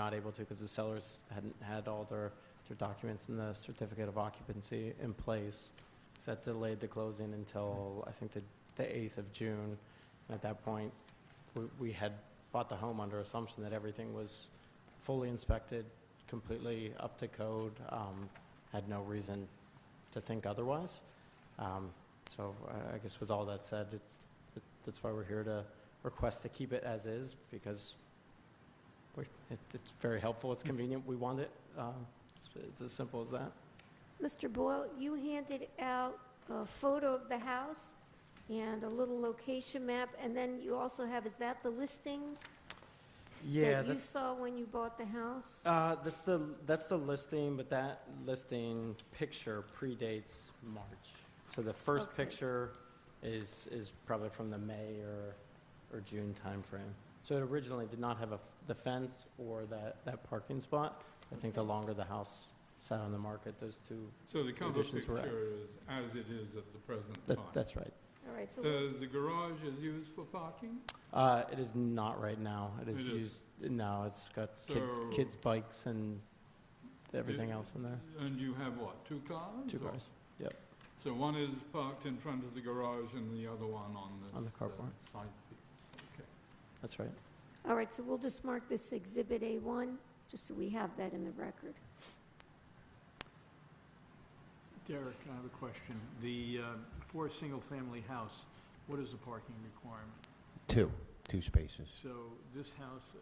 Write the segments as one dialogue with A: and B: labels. A: not able to because the sellers hadn't had all their, their documents and the certificate of occupancy in place. So that delayed the closing until, I think, the, the 8th of June. And at that point, we, we had bought the home under assumption that everything was fully inspected, completely up to code, um, had no reason to think otherwise. Um, So I- I guess with all that said, it- it- that's why we're here to request to keep it as is, because we- it- it's very helpful, it's convenient, we want it. Um, it's- It's as simple as that.
B: Mr. Boyle, you handed out a photo of the house and a little location map, and then you also have, is that the listing that you saw when you bought the house?
A: Uh, that's the, that's the listing, but that listing picture predates March. So the first
B: Okay.
A: picture is, is probably from the May or, or June timeframe. So it originally did not have a, f- the fence or that, that parking spot. I think the
B: Okay.
A: longer the house sat on the market, those two,
C: So the cover
A: additions were-
C: picture is as it is at the present
A: that,
C: time.
A: that's right.
B: All right, so,
C: The, the garage is used for parking,
A: Uh, it is not right now. It is
C: It
A: used,
C: is.
A: no, it's got kid,
C: So-
A: kids' bikes and everything else in there.
C: and you have what, two cars?
A: Two
C: or-
A: cars.
C: So one is parked in front of the garage and the other one on this.
A: On the
C: uh,
A: carport.
C: Side.
A: That's right.
B: all right, so we'll just mark this Exhibit A1, just so we have that in the record.
D: Derek, I have a question. The, uh, for a single-family house, what is the parking requirement?
E: Two, two spaces.
D: So this house,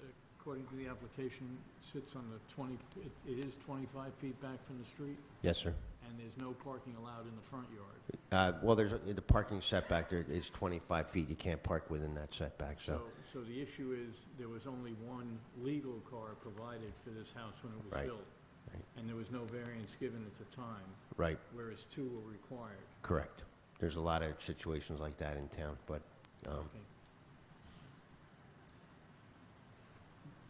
D: according to the application, sits on the 20, it- it is 25 feet back from the street,
E: Yes, sir.
D: and there's no parking allowed in the front yard.
E: Uh, Well, there's, a- the parking setback there is 25 feet. You can't park within that setback, so.
D: So, so the issue is, there was only one legal car provided for this house when it was
E: Right,
D: built.
E: right.
D: And there was no variance given at the time,
E: Right,
D: whereas two were required.
E: correct. There's a lot of situations like that in town, but um,
D: Okay.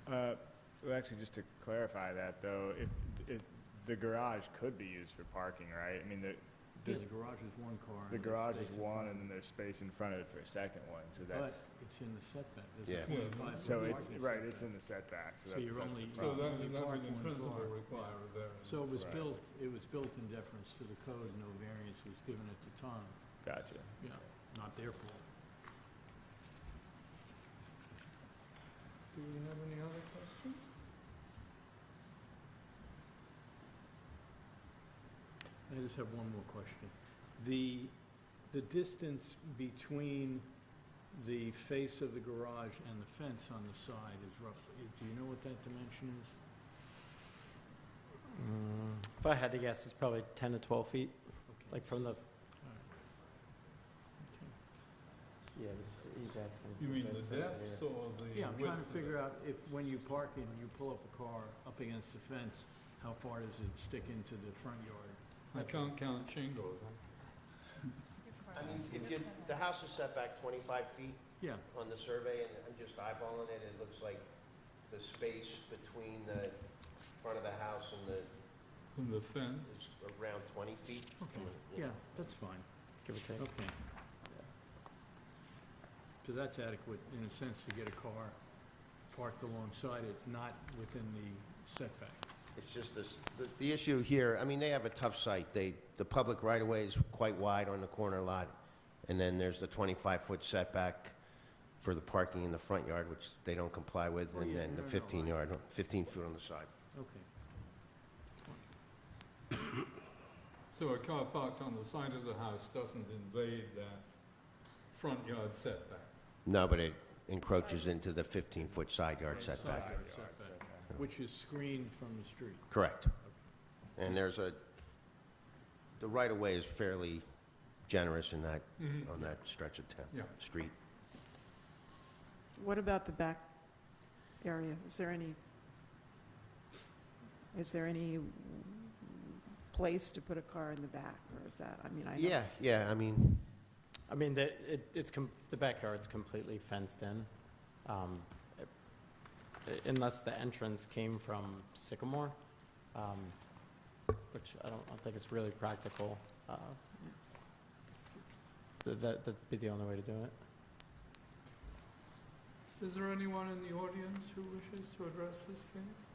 F: Uh, Well, actually, just to clarify that, though, if, if, the garage could be used for parking, right? I mean, the,
D: Yeah,
F: does-
D: The garage is one car.
F: the
D: and
F: garage is
D: space in
F: one,
D: front.
F: and then there's space in front of it for a second one, so
D: But
F: that's,
D: it's in the setback.
E: Yeah.
D: There's a 25
F: so
D: foot
F: it's,
D: parking
F: right,
D: setback.
F: it's in the setback, so
D: So
F: that's,
D: you're
F: that's the
D: only-
C: So
F: problem.
C: that,
D: Only
C: that would in
D: parking one
C: principle
D: car.
C: require a variance.
D: So it was
F: Right.
D: built, it was built in deference to the code, no variance was given at the time,
F: Gotcha.
D: yeah, not their fault.
C: Do we have any other questions?
D: I just have one more question. The, the distance between the face of the garage and the fence on the side is roughly, do you know what that dimension is?
A: Mm, If I had to guess, it's probably 10 to 12 feet,
D: Okay.
A: like from the
D: All right.
A: Yeah, but he's asking.
C: You
A: for
C: mean
A: this
C: the
A: right
C: depths
A: here.
C: or the width?
D: Yeah, I'm trying
C: of it?
D: to figure out if, when you park and you pull up a car up against the fence, how far does it stick into the front yard?
C: I can't count shingles.
E: I mean, if you, the house is set back 25 feet
D: Yeah,
E: on the survey, and I'm just eyeballing it, it looks like the space between the front of the house and the,
C: From the fence,
E: is around 20 feet.
D: Okay. yeah, that's fine.
A: Give or take.
D: Okay. So that's adequate, in a sense, to get a car parked alongside it, not within the setback.
E: It's just this, the, the issue here, I mean, they have a tough site. They, the public right-of-way is quite wide on the corner lot, and then there's the 25-foot setback for the parking in the front yard, which they don't comply with,
D: Well,
E: and
D: yeah,
E: then the
D: no, no, I-
E: 15-yard, 15-foot on the side.
D: Okay.
C: so a car parked on the side of the house doesn't invade that front yard setback.
E: No, but it encroaches into the 15-foot side yard
D: Right,
E: setback.
D: side yard setback, Which is screened from the street.
E: Correct. And there's a, the right-of-way is fairly generous in that,
C: Mhm.
E: on that stretch of
C: Yeah.
E: town, street.
G: What about the back area? Is there any, is there any place to put a car in the back, or is that, I mean, I know...
E: Yeah, yeah, I mean,
A: I mean, the, it, it's, com- the backyard's completely fenced in. um, it- Unless the entrance came from Sycamore, um, which I don't, I don't think it's really practical. uh, th- That, that'd be the only way to do it.
C: Is there anyone in the audience who wishes to address this case?